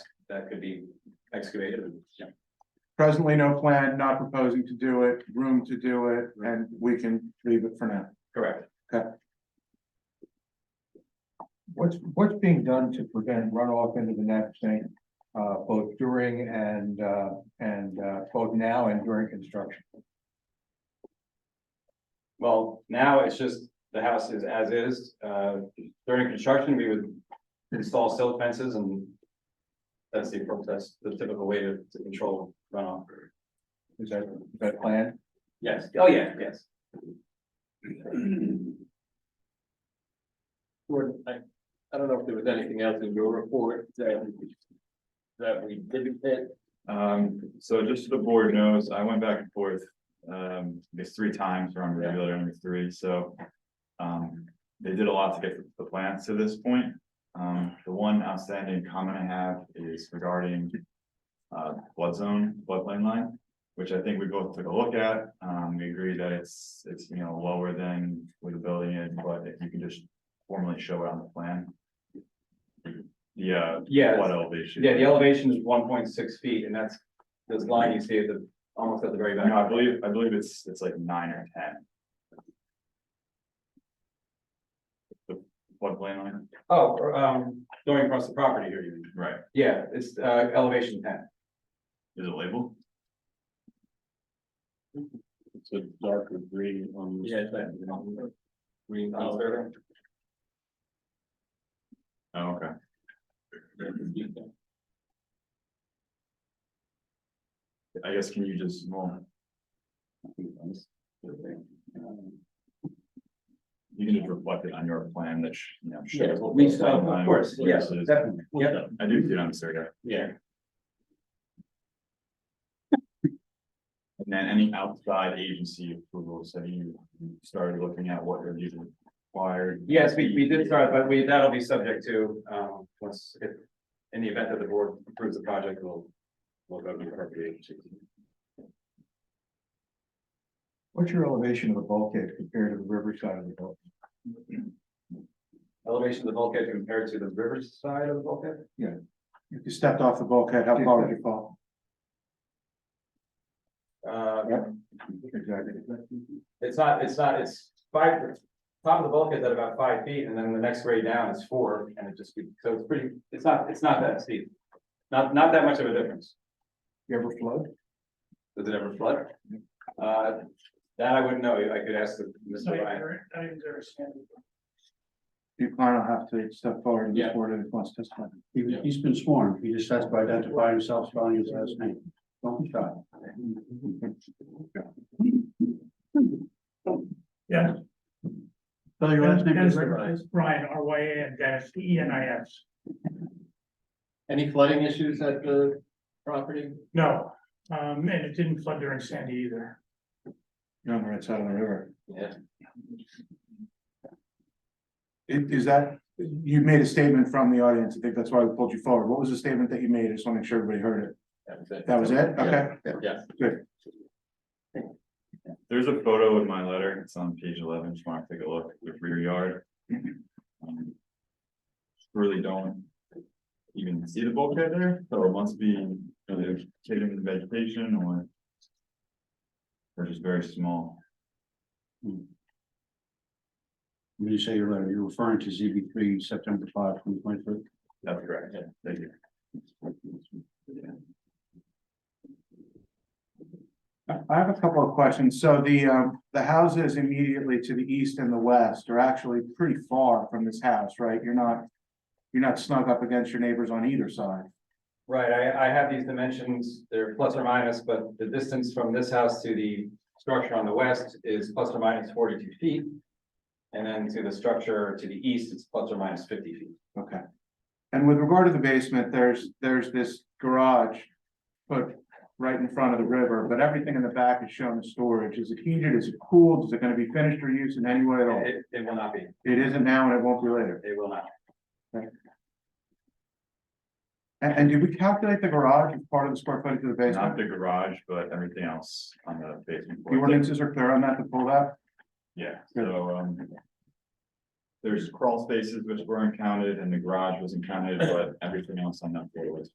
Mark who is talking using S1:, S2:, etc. S1: that could be excavated and
S2: Presently no plan, not proposing to do it, room to do it, and we can leave it for now.
S1: correct.
S3: What's, what's being done to prevent runoff into the Navigant, uh, both during and, uh, and, uh, both now and during construction?
S1: Well, now it's just the house is as is. Uh, during construction, we would install silt fences and that's the, appro- that's the typical way to, to control runoff.
S3: Is that, is that planned?
S1: Yes, oh yeah, yes.
S4: Gordon, I, I don't know if there was anything else in your report that. That we didn't hit,
S5: Um, so just so the board knows, I went back and forth, um, I guess three times around regular number three, so. Um, they did a lot to get the plants to this point. Um, the one outstanding comment I have is regarding. Uh, flood zone, floodplain line, which I think we both took a look at. Um, we agree that it's, it's, you know, lower than where the building is, but if you can just formally show it on the plan. Yeah.
S1: Yeah.
S4: oh
S5: What elevation?
S1: Yeah, the elevation is one point six feet and that's this line you see at the, almost at the very back.
S5: No, I believe, I believe it's, it's like nine or ten. The floodplain line,
S1: Oh, or, um, going across the property here, you mean?
S5: right,
S1: Yeah, it's, uh, elevation ten.
S5: is it labeled?
S4: it's a darker green on.
S1: Yeah, it's
S4: that. Green
S1: Oh,
S4: color.
S1: there.
S5: Oh, okay, I guess can you just, well, you can just reflect it on your plan that, sh- you know. shows
S1: Yeah,
S5: the
S1: we-
S5: floodplain
S1: of
S5: line,
S1: course,
S5: where
S1: yeah,
S5: this is.
S1: definitely, yeah.
S5: I do see it on Instagram.
S1: Yeah,
S5: And then any outside agency approvals, have you started looking at what are usually required?
S1: yes, we, we did start, but we, that'll be subject to, um, once, if, in the event that the board approves the project, we'll. We'll go to the appropriate agency.
S3: What's your elevation of the bulkhead compared to the riverside of the bulkhead?
S1: Elevation of the bulkhead compared to the riverside of the bulkhead?
S2: If you stepped off the bulkhead, how far would you fall?
S1: Uh,
S3: Exactly.
S1: it's not, it's not, it's five, top of the bulkhead's at about five feet, and then the next grade down is four, and it just, keeps- so it's pretty, it's not, it's not that steep. Not, not that much of a difference.
S3: You ever flood?
S1: Does it ever flood? Uh, that I wouldn't know, I could ask the- Mr. Ryan.
S2: You kind of have to step forward and
S1: Yeah.
S2: report it if wants to testify.
S6: He, he's been sworn, he just has to identify himself, spelling his last name. Don't be shy.
S2: Spell your last name,
S6: Dennis
S2: please.
S6: Ryan, Ryan, R Y A N Dennis, D E N I S.
S4: Any flooding issues at the property?
S6: No, um, and it didn't flood during Sandy either.
S2: You're on the right side of the river.
S4: Yeah.
S2: Is, is that, you made a statement from the audience, I think that's why we pulled you forward. What was the statement that you made? I just want to make sure everybody heard it.
S4: That was it.
S2: That was it? Okay.
S5: There's a photo in my letter, it's on page eleven, just wanna take a look with rear yard. Um, Really don't even see the bulkhead there, so it must be either taken in vegetation or. Or just very small,
S6: When you say your letter, you're referring to ZB three, September five, twenty twenty three.
S5: that's correct, yeah, thank you.
S2: I have a couple of questions. So the, um, the houses immediately to the east and the west are actually pretty far from this house, right? You're not, you're not snug up against your neighbors on either side.
S1: Right, I, I have these dimensions, they're plus or minus, but the distance from this house to the structure on the west is plus or minus forty-two feet. And then to the structure to the east, it's plus or minus fifty feet.
S2: Okay. And with regard to the basement, there's, there's this garage put right in front of the river, but everything in the back is shown as storage. Is it heated? Is it cooled? Is it gonna be finished or used in any way at all?
S1: It, it will not be,
S2: It isn't now and it won't be later.
S1: it will not.
S2: And, and did we calculate the garage as part of the square footage of the
S5: Not
S2: basement?
S5: the garage, but everything else on the basement.
S2: The
S5: floor.
S2: ordinances are clear on that to pull that?
S5: Yeah, so, um. There's crawl spaces which weren't counted and the garage wasn't counted, but everything else on that floor was